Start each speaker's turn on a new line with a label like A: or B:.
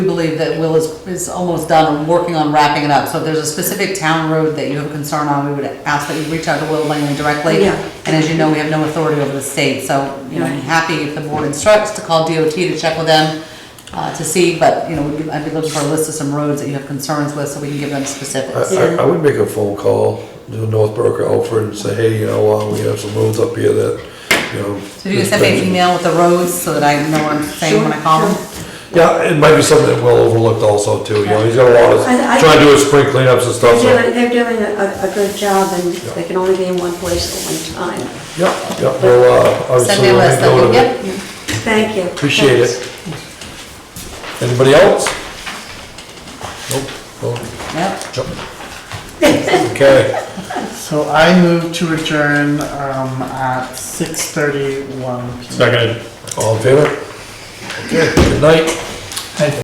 A: We believe that Will is, is almost done and working on wrapping it up. So if there's a specific town road that you have concern on, we would ask that you reach out to Will Langley directly.
B: Yeah.
A: And as you know, we have no authority over the state, so, you know, I'm
B: Right.
A: happy if the board instructs to call DOT to check with them, uh, to see, but, you know, we'd be- I'd be looking for a list of some roads that you have concerns with, so we can give them specifics.
C: I, I- I would make a phone call to North Berwick, Alfred, and say, hey, you know, uh, we have some roads up here that, you know.
A: So if you can send me an email with the roads, so that I know what I'm saying when I call them.
C: Yeah, it might be something that Will overlooked also too, you know, he's got a lot of,
B: I- I-
C: trying to do his spring cleanups and stuff,
B: They're
C: so.
B: doing, they're doing a, a good job and they can only be in one place at one time.
C: Yeah, yeah, well, uh,
A: Send
C: obviously,
A: me a
C: we'll
A: list,
C: make note
A: then,
C: of it.
A: yep.
B: Thank you.
C: Appreciate it. Anybody else? Nope, well,
A: Yep.
C: jump. Okay.
D: So I move to adjourn um, at 6:31 p.m.
E: Second.
C: All in favor? Okay, good night.